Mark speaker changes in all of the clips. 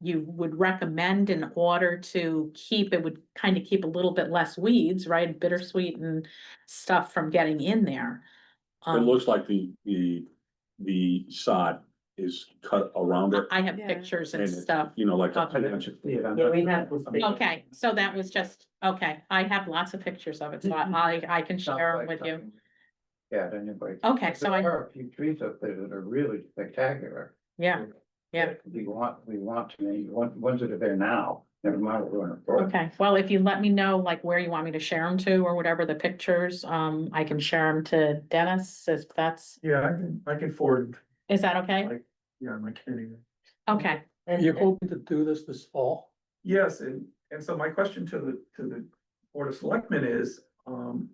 Speaker 1: you would recommend in order to keep, it would kind of keep a little bit less weeds, right? Bittersweet and stuff from getting in there.
Speaker 2: It
Speaker 1: Um,
Speaker 2: looks like the, the, the sod is cut around
Speaker 1: I
Speaker 2: it.
Speaker 1: I have
Speaker 3: Yeah.
Speaker 1: pictures and
Speaker 2: and it's,
Speaker 1: stuff.
Speaker 2: You know, like. a
Speaker 1: Okay.
Speaker 2: ten inch-
Speaker 4: Yeah, we have-
Speaker 1: Okay, so that was just, okay, I have lots of pictures of it, so I, I can share them with you.
Speaker 4: Yeah, anyway.
Speaker 1: Okay, so I,
Speaker 4: There are a few trees up there that are really spectacular.
Speaker 1: yeah, yeah.
Speaker 4: We want, we want to, make- one- ones that are there now, never mind, we're going to.
Speaker 1: okay, well, if you let me know like where you want me to share them to or whatever the pictures, um, I can share them to Dennis, if that's,
Speaker 5: Yeah, I can, I can forward,
Speaker 1: is that okay?
Speaker 5: yeah, my community.
Speaker 1: Okay,
Speaker 6: You're hoping to do this this fall?
Speaker 5: Yes, and, and so my question to the, to the Board of Selectmen is, um.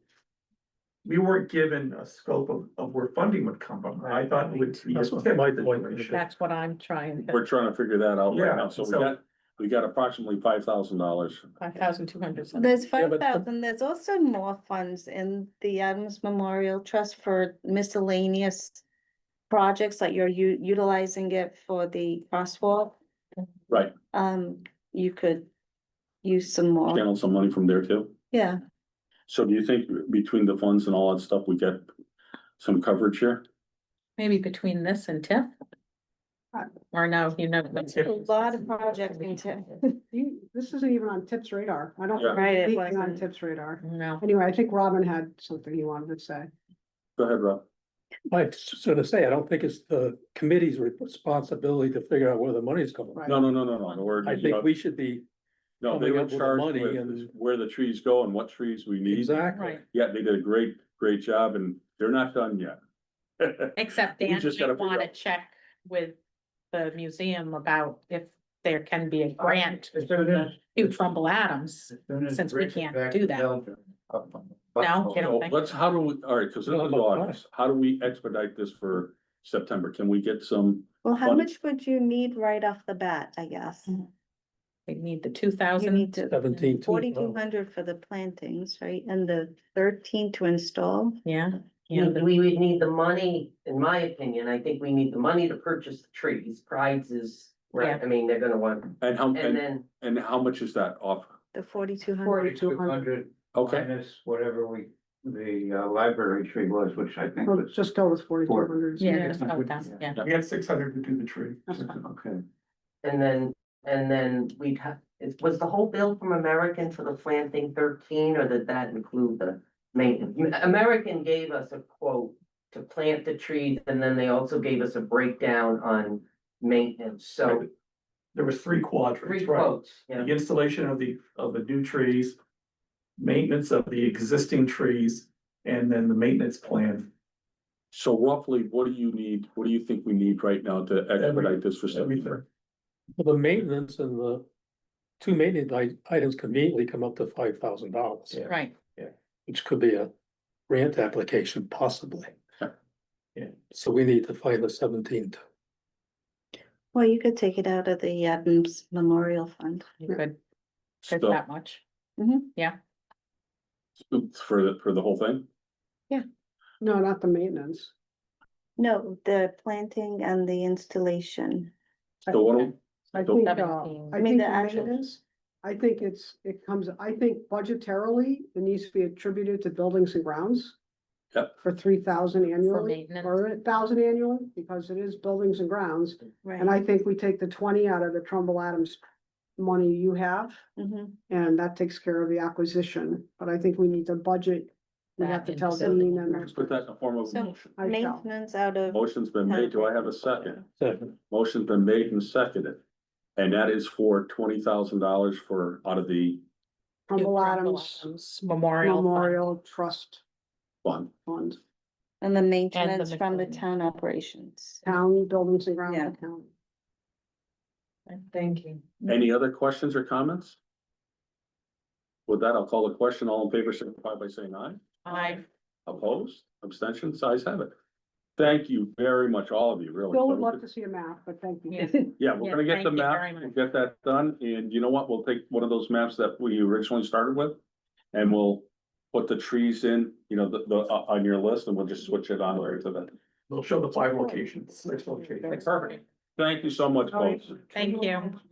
Speaker 5: We weren't given a scope of, of where funding would come from. I thought it would be. a
Speaker 6: That's what my
Speaker 5: tentative
Speaker 6: point was.
Speaker 5: ratio.
Speaker 1: that's what I'm trying,
Speaker 2: We're trying to figure that out
Speaker 5: Yeah,
Speaker 2: right now, so we
Speaker 5: so-
Speaker 2: got, we got approximately five thousand dollars.
Speaker 1: five thousand two hundred.
Speaker 3: There's
Speaker 6: Yeah,
Speaker 3: five
Speaker 6: but-
Speaker 3: thousand, there's also more funds in the Adams Memorial Trust for miscellaneous projects, like you're u- utilizing it for the crosswalk.
Speaker 2: Right.
Speaker 3: Um, you could use some more,
Speaker 2: Channel some money from there too.
Speaker 3: yeah,
Speaker 2: So do you think between the funds and all that stuff, we get some coverage here?
Speaker 1: Maybe between this and TIF?
Speaker 7: Uh,
Speaker 1: Or no, you know. that's-
Speaker 3: a lot of projects into,
Speaker 7: You, this isn't even on tips radar. I don't.
Speaker 2: Yeah.
Speaker 7: remember
Speaker 3: Right, it
Speaker 7: being On
Speaker 3: wasn't.
Speaker 7: tips radar.
Speaker 1: No,
Speaker 7: Anyway, I think Robin had something he wanted to say.
Speaker 2: Go ahead, Rob.
Speaker 6: Like, so to say, I don't think it's the committee's responsibility to figure out where the money's coming.
Speaker 7: Right.
Speaker 2: No, no, no, no, no, the word.
Speaker 6: I think we should be,
Speaker 2: No, they
Speaker 6: coming
Speaker 2: were
Speaker 6: up with the
Speaker 2: charged
Speaker 6: money
Speaker 2: with
Speaker 6: and-
Speaker 2: where the trees go and what trees we need.
Speaker 6: exactly.
Speaker 1: right,
Speaker 2: Yeah, they did a great, great job and they're not done yet.
Speaker 1: except
Speaker 2: We
Speaker 1: Dan
Speaker 2: just
Speaker 1: might
Speaker 2: gotta figure
Speaker 1: wanna
Speaker 2: out-
Speaker 1: check with the museum about if there can be a grant
Speaker 4: As soon as-
Speaker 1: to Trumbull Adams.
Speaker 4: as soon as
Speaker 1: Since we
Speaker 4: Rick is
Speaker 1: can't
Speaker 4: back
Speaker 1: do
Speaker 4: in
Speaker 1: that.
Speaker 4: Belgium, up on the
Speaker 1: No, I
Speaker 4: bus-
Speaker 1: don't
Speaker 2: So
Speaker 1: think-
Speaker 2: let's, how do we, all right, because this
Speaker 6: No,
Speaker 2: is
Speaker 6: but why?
Speaker 2: August, how do we expedite this for September? Can we get some?
Speaker 3: well, how
Speaker 2: Funny.
Speaker 3: much would you need right off the bat, I guess?
Speaker 1: They need the two
Speaker 3: You need
Speaker 1: thousand.
Speaker 3: to.
Speaker 6: Seventeen two.
Speaker 3: Forty-two hundred for the plantings, right, and the thirteen to install?
Speaker 1: Yeah.
Speaker 8: We,
Speaker 1: Yeah,
Speaker 8: we would need the money, in my opinion, I think we need the money to purchase the trees, prides is, right, I mean, they're gonna want,
Speaker 2: And how,
Speaker 8: and
Speaker 2: and,
Speaker 8: then.
Speaker 2: and how much is that off?
Speaker 3: The forty-two hundred,
Speaker 4: Forty-two hundred
Speaker 2: Okay,
Speaker 4: minus whatever we, the uh, library tree was, which I think
Speaker 7: Well,
Speaker 4: was.
Speaker 7: just go with forty-two hundred.
Speaker 1: Yeah,
Speaker 4: Yeah.
Speaker 1: it's about that, yeah.
Speaker 5: We had six hundred to do the tree.
Speaker 4: Okay.
Speaker 8: And then, and then we'd have, it was the whole bill from American for the planting thirteen, or did that include the maintenance? American gave us a quote to plant the trees, and then they also gave us a breakdown on maintenance, so
Speaker 5: There was three
Speaker 8: three
Speaker 5: quadrants, right?
Speaker 8: quotes, yeah.
Speaker 5: The installation of the, of the new trees, maintenance of the existing trees, and then the maintenance plan.
Speaker 2: so roughly, what do you need, what do you think we need right now to expedite this for September?
Speaker 5: Everything.
Speaker 6: The maintenance and the two maintenance i- items conveniently come up to five thousand dollars,
Speaker 5: Yeah.
Speaker 1: Right,
Speaker 6: which could be a grant application possibly.
Speaker 2: Yeah.
Speaker 5: Yeah.
Speaker 6: So we need to find the seventeen. two.
Speaker 3: well, you could take it out of the Adams Memorial Fund.
Speaker 1: you could, fit
Speaker 2: So,
Speaker 1: that much.
Speaker 2: for, the- for the whole thing?
Speaker 7: No, not the maintenance.
Speaker 3: No, the planting and the installation.
Speaker 2: So what, do-
Speaker 7: I
Speaker 2: So-
Speaker 7: think, uh,
Speaker 1: Seventeen.
Speaker 7: I
Speaker 3: I mean,
Speaker 7: think
Speaker 3: the
Speaker 7: the
Speaker 3: actual-
Speaker 7: maintenance, I think it's, it comes, I think budgetarily, it needs to be attributed to buildings and grounds.
Speaker 2: Yep.
Speaker 7: For three thousand annually,
Speaker 1: maintenance.
Speaker 7: or a thousand annually, because it is buildings and grounds. And
Speaker 3: Right.
Speaker 7: I think we take the twenty out of the Trumbull Adams money you have,
Speaker 3: Mhm.
Speaker 7: and that takes care of the acquisition, but I think we need to budget. We have
Speaker 1: That
Speaker 7: to
Speaker 1: and
Speaker 7: tell
Speaker 1: building
Speaker 7: them, you know,
Speaker 1: grounds.
Speaker 2: put that in the form of a
Speaker 3: So-
Speaker 2: motion.
Speaker 7: I shall.
Speaker 3: Maintenance out of.
Speaker 2: Motion's been made, do I have a second?
Speaker 6: Second.
Speaker 2: Motion's been made and seconded. And that is for twenty thousand dollars for, out of the
Speaker 7: Trumbull Adams
Speaker 1: Memorial. Fund.
Speaker 7: Memorial Trust
Speaker 2: fund.
Speaker 7: Fund,
Speaker 3: And the maintenance from the
Speaker 1: miscellaneous.
Speaker 3: town operations.
Speaker 7: town buildings and
Speaker 3: Yeah.
Speaker 7: grounds account.
Speaker 1: Thank you.
Speaker 2: Any other questions or comments? With that, I'll call the question. All in favor, signify by saying aye.
Speaker 1: I,
Speaker 2: Opposed, abstentions, ayes have it. Thank you very much, all of you, really.
Speaker 7: Bill would love to see a map, but thank you.
Speaker 2: Yeah, we're gonna
Speaker 1: Yeah, thank
Speaker 2: get the
Speaker 1: you very
Speaker 2: map,
Speaker 1: much.
Speaker 2: we'll get that done, and you know what? We'll take one of those maps that we originally started with. And we'll put the trees in, you know, the, the, uh, on your list, and we'll just switch it on over to that.
Speaker 5: They'll show the five locations, six locations.
Speaker 2: Perfect. Thank you so much, folks.
Speaker 1: thank you.